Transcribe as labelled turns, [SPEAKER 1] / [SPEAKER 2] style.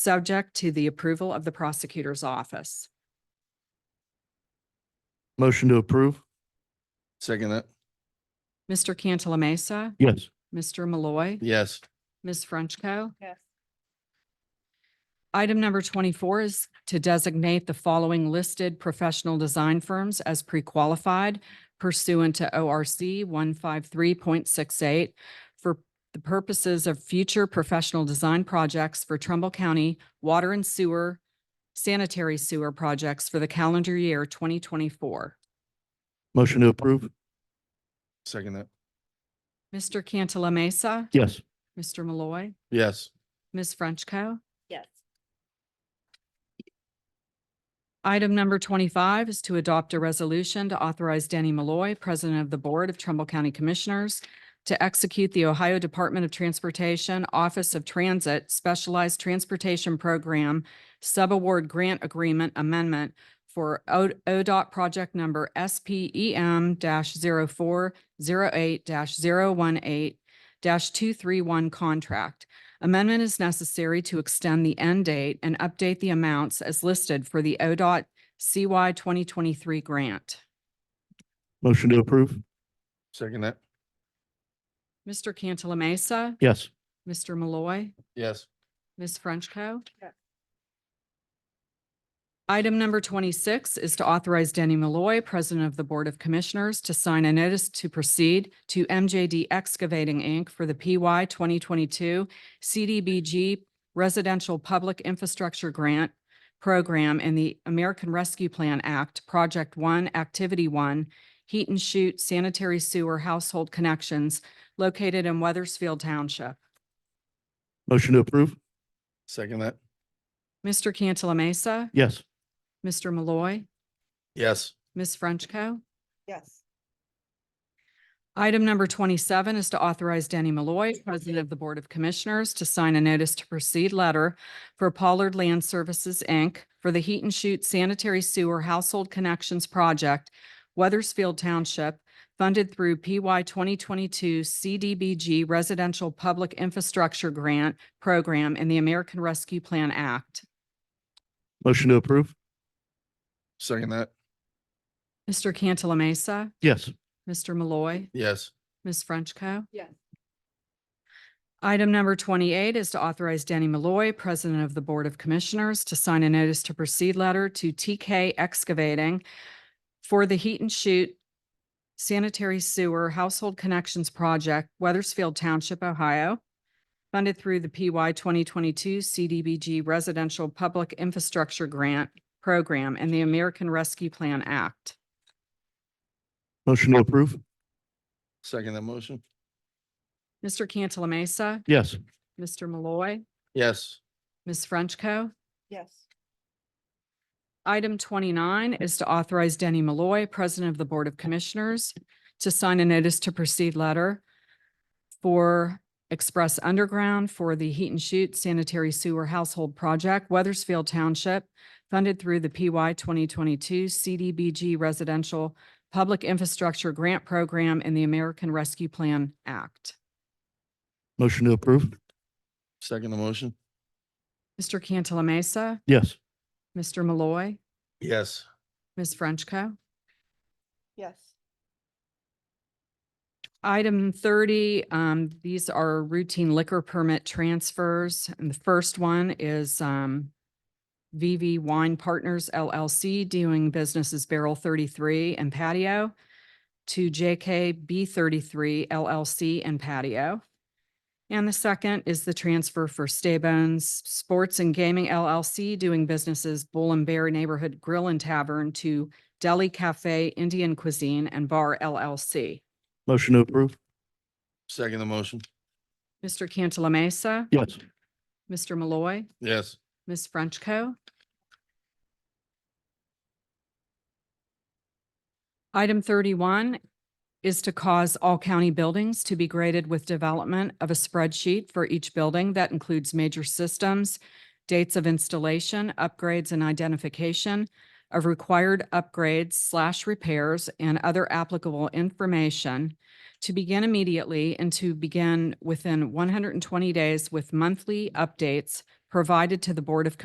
[SPEAKER 1] subject to the approval of the prosecutor's office.
[SPEAKER 2] Motion to approve. Second that.
[SPEAKER 1] Mr. Cantala Mesa,
[SPEAKER 2] Yes.
[SPEAKER 1] Mr. Malloy,
[SPEAKER 2] Yes.
[SPEAKER 1] Ms. Frenchco.
[SPEAKER 3] Yes.
[SPEAKER 1] Item number twenty-four is to designate the following listed professional design firms as pre-qualified pursuant to O R C one five three point six eight for the purposes of future professional design projects for Trumbull County water and sewer sanitary sewer projects for the calendar year twenty twenty-four.
[SPEAKER 2] Motion to approve. Second that.
[SPEAKER 1] Mr. Cantala Mesa,
[SPEAKER 2] Yes.
[SPEAKER 1] Mr. Malloy,
[SPEAKER 2] Yes.
[SPEAKER 1] Ms. Frenchco.
[SPEAKER 3] Yes.
[SPEAKER 1] Item number twenty-five is to adopt a resolution to authorize Danny Malloy, President of the Board of Trumbull County Commissioners, to execute the Ohio Department of Transportation Office of Transit Specialized Transportation Program Subaward Grant Agreement Amendment for O- ODOT Project Number E SPEM 408 18 two three one contract. Amendment is necessary to extend the end date and update the amounts as listed for the ODOT CY twenty twenty-three grant.
[SPEAKER 2] Motion to approve. Second that.
[SPEAKER 1] Mr. Cantala Mesa,
[SPEAKER 2] Yes.
[SPEAKER 1] Mr. Malloy,
[SPEAKER 2] Yes.
[SPEAKER 1] Ms. Frenchco.
[SPEAKER 3] Yes.
[SPEAKER 1] Item number twenty-six is to authorize Danny Malloy, President of the Board of Commissioners, to sign a notice to proceed to MJD Excavating, Inc. for the PY twenty twenty-two CDBG Residential Public Infrastructure Grant Program and the American Rescue Plan Act, Project One, Activity One, Heat and Shoot Sanitary Sewer Household Connections located in Weathersfield Township.
[SPEAKER 2] Motion to approve. Second that.
[SPEAKER 1] Mr. Cantala Mesa,
[SPEAKER 2] Yes.
[SPEAKER 1] Mr. Malloy,
[SPEAKER 2] Yes.
[SPEAKER 1] Ms. Frenchco.
[SPEAKER 3] Yes.
[SPEAKER 1] Item number twenty-seven is to authorize Danny Malloy, President of the Board of Commissioners, to sign a notice to proceed letter for Pollard Land Services, Inc. for the Heat and Shoot Sanitary Sewer Household Connections Project, Weathersfield Township, funded through PY twenty twenty-two CDBG Residential Public Infrastructure Grant Program and the American Rescue Plan Act.
[SPEAKER 2] Motion to approve. Second that.
[SPEAKER 1] Mr. Cantala Mesa,
[SPEAKER 2] Yes.
[SPEAKER 1] Mr. Malloy,
[SPEAKER 2] Yes.
[SPEAKER 1] Ms. Frenchco.
[SPEAKER 3] Yes.
[SPEAKER 1] Item number twenty-eight is to authorize Danny Malloy, President of the Board of Commissioners, to sign a notice to proceed letter to TK Excavating for the Heat and Shoot Sanitary Sewer Household Connections Project, Weathersfield Township, Ohio, funded through the PY twenty twenty-two CDBG Residential Public Infrastructure Grant Program and the American Rescue Plan Act.
[SPEAKER 2] Motion to approve. Second that motion.
[SPEAKER 1] Mr. Cantala Mesa,
[SPEAKER 2] Yes.
[SPEAKER 1] Mr. Malloy,
[SPEAKER 2] Yes.
[SPEAKER 1] Ms. Frenchco.
[SPEAKER 3] Yes.
[SPEAKER 1] Item twenty-nine is to authorize Denny Malloy, President of the Board of Commissioners, to sign a notice to proceed letter for Express Underground for the Heat and Shoot Sanitary Sewer Household Project, Weathersfield Township, funded through the PY twenty twenty-two CDBG Residential Public Infrastructure Grant Program and the American Rescue Plan Act.
[SPEAKER 2] Motion to approve. Second the motion.
[SPEAKER 1] Mr. Cantala Mesa,
[SPEAKER 2] Yes.
[SPEAKER 1] Mr. Malloy,
[SPEAKER 2] Yes.
[SPEAKER 1] Ms. Frenchco.
[SPEAKER 3] Yes.
[SPEAKER 1] Item thirty, um, these are routine liquor permit transfers. And the first one is, um, VV Wine Partners LLC doing business as Barrel thirty-three and Patio to JK B thirty-three LLC and Patio. And the second is the transfer for Staybones Sports and Gaming LLC doing businesses Bull and Bear Neighborhood Grill and Tavern to Deli Cafe Indian Cuisine and Bar LLC.
[SPEAKER 2] Motion to approve. Second the motion.
[SPEAKER 1] Mr. Cantala Mesa,
[SPEAKER 2] Yes.
[SPEAKER 1] Mr. Malloy,
[SPEAKER 2] Yes.
[SPEAKER 1] Ms. Frenchco. Item thirty-one is to cause all county buildings to be graded with development of a spreadsheet for each building that includes major systems, dates of installation, upgrades, and identification of required upgrades slash repairs and other applicable information to begin immediately and to begin within one hundred and twenty days with monthly updates provided to the Board of